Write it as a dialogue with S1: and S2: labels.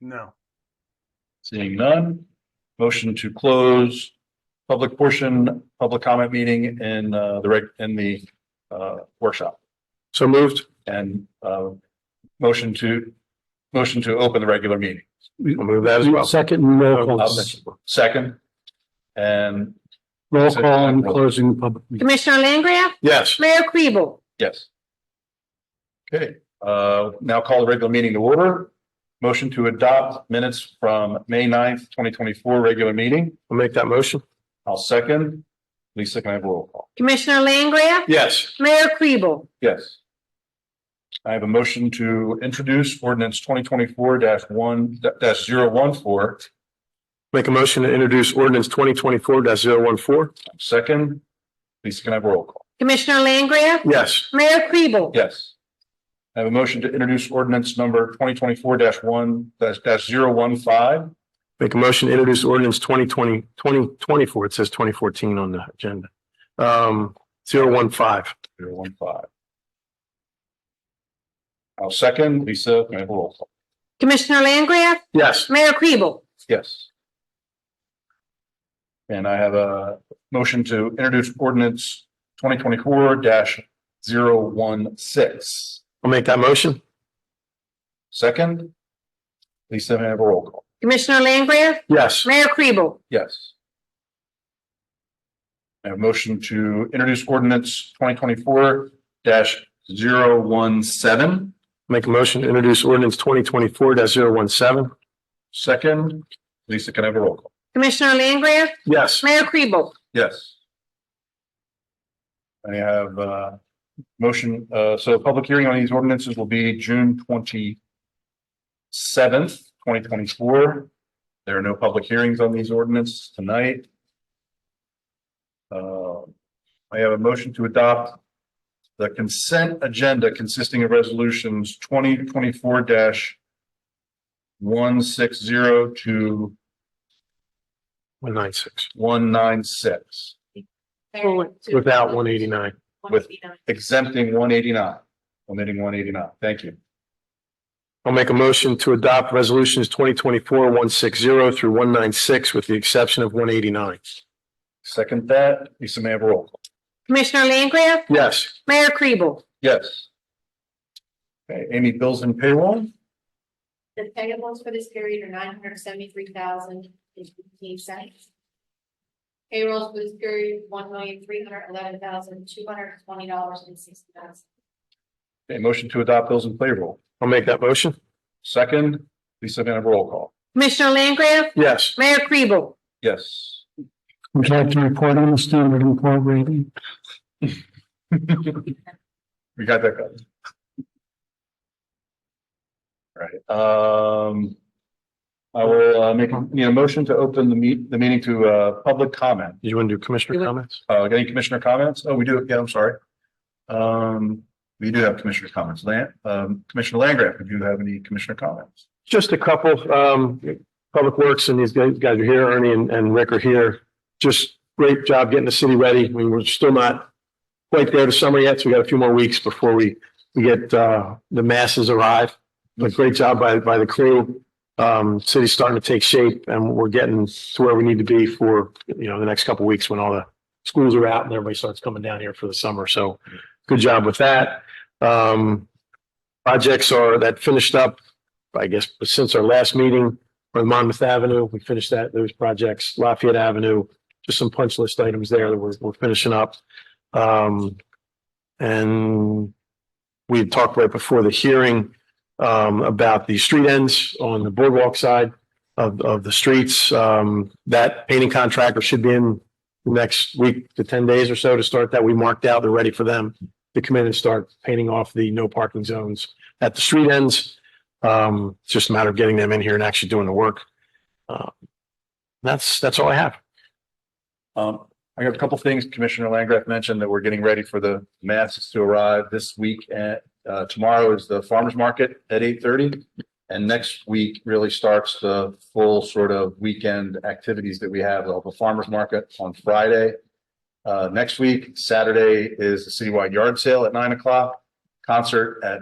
S1: No.
S2: Seeing none, motion to close public portion, public comment meeting in uh the reg, in the uh workshop
S3: So moved.
S2: and uh motion to, motion to open the regular meeting.
S3: I'll move that as well.
S4: Second and roll
S2: I'll
S4: call,
S2: second. Second. And
S4: roll call and closing the public meeting.
S5: Commissioner Langria?
S3: Yes.
S5: Mayor Kribel?
S2: yes. Okay, uh now call the regular meeting to order. Motion to adopt minutes from May 9th, twenty twenty-four, regular meeting.
S3: I'll make that motion.
S2: I'll second. Lisa, can I have a roll call?
S5: Commissioner Langria?
S3: Yes.
S5: Mayor Kribel?
S2: Yes. I have a motion to introduce ordinance twenty twenty-four one dash zero one four.
S3: Make a motion to introduce ordinance twenty twenty-four 14
S2: Second, Lisa, can I have a roll call?
S5: Commissioner Langria?
S3: Yes.
S5: Mayor Kribel?
S2: Yes. I have a motion to introduce ordinance number twenty twenty-four dash one dash dash zero one five.
S3: Make a motion to introduce ordinance 2020 2024. It says twenty fourteen on the agenda. Um, zero one five.
S2: Zero one five. I'll second. Lisa, can I have a roll call?
S5: Commissioner Langria?
S3: Yes.
S5: Mayor Kribel?
S2: Yes. And I have a motion to introduce ordinance twenty twenty-four dash zero one six.
S3: I'll make that motion.
S2: Second. Lisa, may I have a roll call?
S5: Commissioner Langria?
S3: Yes.
S5: Mayor Kribel?
S2: Yes. I have a motion to introduce ordinance twenty twenty-four dash zero one seven.
S3: Make a motion to introduce ordinance twenty twenty-four 17
S2: Second. Lisa, can I have a roll call?
S5: Commissioner Langria?
S3: Yes.
S5: Mayor Kribel?
S2: Yes. I have uh motion, uh, so public hearing on these ordinances will be June twenty seventh, twenty twenty four. There are no public hearings on these ordinances tonight. Uh, I have a motion to adopt the consent agenda consisting of resolutions twenty twenty four one six zero to
S3: One nine six
S2: one nine six.
S3: without one eighty-nine.
S2: with exempting one eighty-nine, omitting one eighty-nine. Thank you.
S3: I'll make a motion to adopt resolutions twenty twenty-four one six zero through one nine six with the exception of one eighty-nine.
S2: Second that, Lisa may I have a roll call.
S5: Commissioner Langria?
S3: Yes.
S5: Mayor Kribel?
S2: Yes. Okay, Amy, bills and payroll,
S6: The payables for this period are nine hundred seventy-three thousand and fifteen cents. Payrolls for this period, one million three hundred eleven thousand two hundred twenty dollars and sixty cents.
S2: a motion to adopt bills and payroll.
S3: I'll make that motion.
S2: Second, Lisa may I have a roll call.
S5: Commissioner Langria?
S3: Yes.
S5: Mayor Kribel?
S2: Yes.
S4: Would you like to report on the standard and poor rating?
S2: We got that covered. Right, um. I will, uh, make, need a motion to open the meet, the meeting to, uh, public comment.
S3: Did you want to do commissioner
S5: You want-
S3: comments?
S2: Uh, any commissioner comments? Oh, we do, yeah, I'm sorry. Um, we do have commissioner comments. Lan, um, Commissioner Langgraf, do you have any commissioner comments?
S3: Just a couple, um, Public Works and these guys guys are here, Ernie and, and Rick are here. Just great job getting the city ready. We were still not quite there to summer yet, so we got a few more weeks before we, we get, uh, the masses arrive. But great job by, by the crew. Um, city's starting to take shape and we're getting to where we need to be for, you know, the next couple of weeks when all the schools are out and everybody starts coming down here for the summer. So good job with that. Um, projects are, that finished up I guess, since our last meeting on Monmouth Avenue, we finished that, those projects, Lafayette Avenue, just some punch list items there that we're, we're finishing up. Um, and we had talked right before the hearing, um, about the street ends on the boardwalk side of, of the streets. Um, that painting contractor should be in the next week to ten days or so to start that. We marked out, they're ready for them to come in and start painting off the no parking zones at the street ends. Um, it's just a matter of getting them in here and actually doing the work. Uh, That's, that's all I have.
S2: Um, I got a couple things Commissioner Langgraf mentioned that we're getting ready for the masses to arrive this week at, uh, tomorrow is the farmer's market at eight thirty. And next week really starts the full sort of weekend activities that we have, They'll have the farmer's market on Friday. Uh, next week, Saturday is the citywide yard sale at nine o'clock, concert at